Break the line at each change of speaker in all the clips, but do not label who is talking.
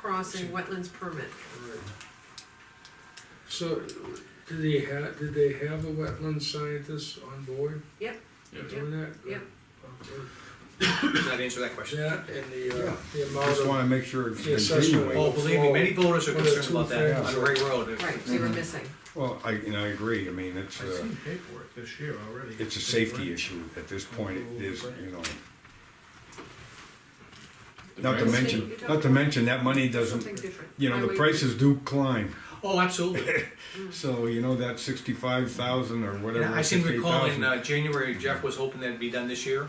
crossing wetlands permit.
So, did they have, did they have a wetland scientist on board
Yep.
doing that?
yep.
Okay.
Does that answer that question?
That and the, uh,
Yeah.
the
I Just
amount of,
wanna make sure
The
it's
assessment.
continuing.
Oh, believe me, many voters are
Well,
concerned about
two
that on
things.
the Ring Road.
Right, we were
Mm-hmm.
missing.
Well, I, and I agree, I mean, it's,
I've
uh,
seen paperwork this year already.
it's a safety issue at this point, it is, you know. Not to
price?
mention, not to mention, that money
Something
doesn't,
different.
you know, the
Highway-
prices do climb,
Oh, absolutely.
Mm.
so you know that sixty-five thousand or
And
whatever.
I seem to recall in
58,000.
uh, January, Jeff was hoping that'd be done this year.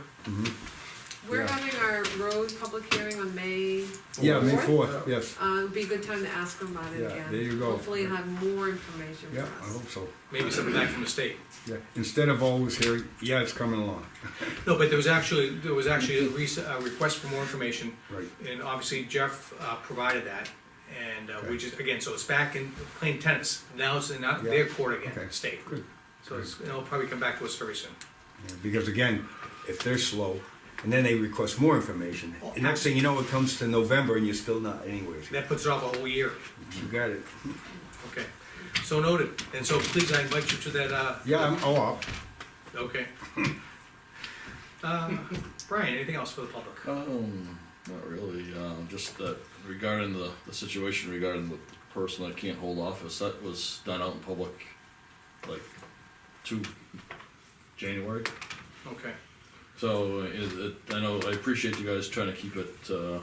We're
yeah.
having our road public hearing on May,
Yeah, May
fourth?
fourth, yes,
uh, it'd be a good time to ask them about it
Yeah,
again.
there you go.
Hopefully you'll have more information for
yeah,
us.
I hope so,
Maybe something back from the state.
yeah, instead of always hearing, yeah, it's coming along,
No, but there was actually, there was actually a rec- a request for more information,
right,
and obviously Jeff uh, provided that. And uh,
Okay.
we just, again, so it's back in plain tennis. Now it's in out-
Yeah.
their court again,
Okay.
state.
good.
So it's, it'll probably come back to us very soon.
Yeah, Because again, if they're slow, and then they request more information,
Oh,
and next thing you know, it comes to November and you're still not anyways.
That puts it off a whole year.
You got it.
Okay. So noted. And so please, I invite you to that, uh,
Yeah, I'm all up.
Okay. Uh, Brian, anything else for the public?
Um, not really, um, just that regarding the, the situation regarding the person that can't hold office, that was done out in public, like, two, January.
Okay,
So, it, it, I know, I appreciate you guys trying to keep it, uh,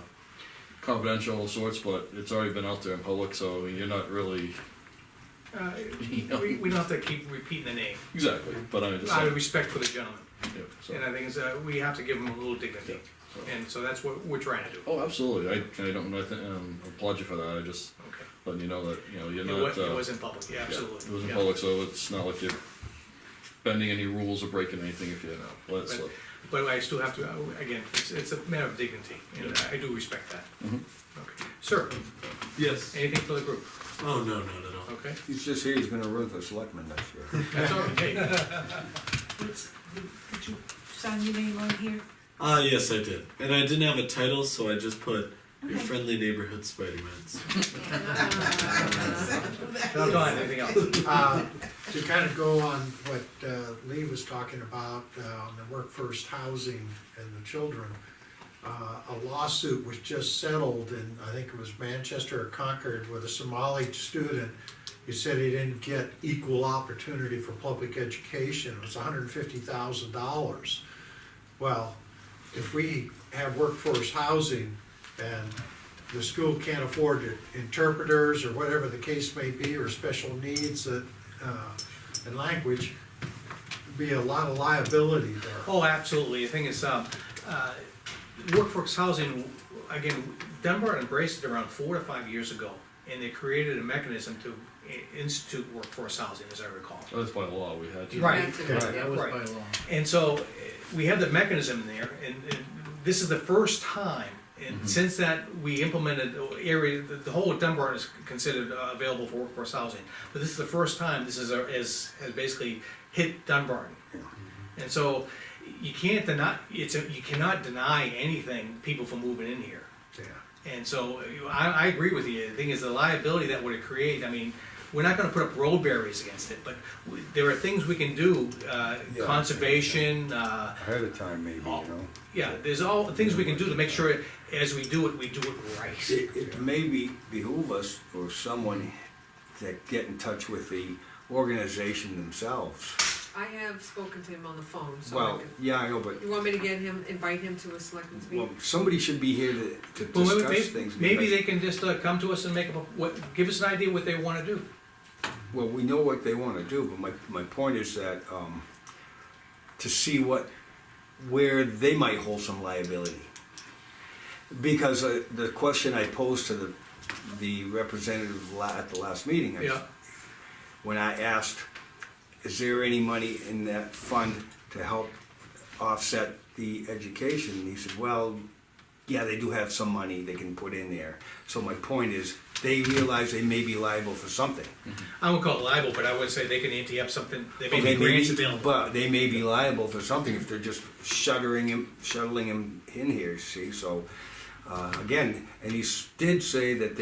confidential of sorts, but it's already been out there in public, so you're not really,
Uh, we, we don't have to keep repeating the name,
exactly, but I just,
out of
yeah,
respect for the gentleman,
so.
and I think is, uh, we have to give him a little dignity,
so-
and so that's what we're trying to do,
Oh, absolutely, I, I don't, I think, um, applaud you for that, I just
okay?
letting you know that, you know, you're
It
not,
was,
uh.
it was in public, yeah,
Yeah, It was
absolutely,
in
yeah.
public, so it's not like you're bending any rules or breaking anything if you know, let it slip.
But I still have to, uh, again, it's, it's a matter of dignity, and I do respect that.
Mm-hmm.
Okay. Sir,
Yes.
anything for the group,
Oh, no, no, no, no.
okay?
He's just here, he's gonna run for selectman next year.
That's all, right. hey,
What's, did you sign your name on here?
Ah, yes, I did. And I didn't have a title, so I just put Your
Okay.
Friendly Neighborhood Spider-Man's.
now Don, anything else?
Uh, To kind of go on what uh, Lee was talking about, uh, on the work first housing and the children, uh, a lawsuit was just settled in, I think it was Manchester or Concord, with a Somali student who said he didn't get equal opportunity for public education, it was hundred and fifty thousand dollars. Well, if we have workforce housing and the school can't afford it, interpreters or whatever the case may be, or special needs that, uh, and language, be a lot of liability there.
Oh, absolutely, the thing is, um, uh, workforce housing, again, Dunbar embraced it around four to five years ago, and they created a mechanism to i- institute workforce housing, as I recall.
That's by law, we had to.
Right.
Back to it, yeah.
Right. And so, eh, we have the mechanism there, and, and this is the first time, and since that, we implemented the area, the, the whole of Dunbar is considered uh, available for workforce housing. But this is the first time this is, a- is, has basically hit Dunbar. And so, you can't deny, it's, a- you cannot deny anything, people from moving in here.
Yeah.
And so you- I, I agree with you. The thing is, the liability that would create, I mean, we're not gonna put up road barriers against it, but we- there are things we can do, uh,
Yeah.
conservation, uh,
Ahead of time, maybe, you
Oh.
know?
yeah, there's all things we can do to make sure as we do it, we do it right.
It, it may be behoove us or someone to get in touch with the organization themselves.
I have spoken to him on the phone, so I
Well,
can-
yeah, I know, but,
you want me to get him, invite him to a selectmen's
well,
meeting?
somebody should be here to, to
Well, maybe-
discuss things.
Maybe
because-
they can just uh, come to us and make up, a- what, give us an idea what they wanna do.
Well, we know what they wanna do, but my, my point is that, um, to see what, where they might hold some liability. Because uh, the question I posed to the, the representative la- at the last meeting, I
Yeah,
when I asked, is there any money in that fund to help offset the education? And he said, well, yeah, they do have some money they can put in there. So my point is, they realize they may be liable for something.
I won't call it libel, but I would say they can ante up something, they may
They
be
may
grants
be-
available.
But they may be liable for something if they're just shuttering him, shuttling him in here, you see, so, uh, again, and he s- did say that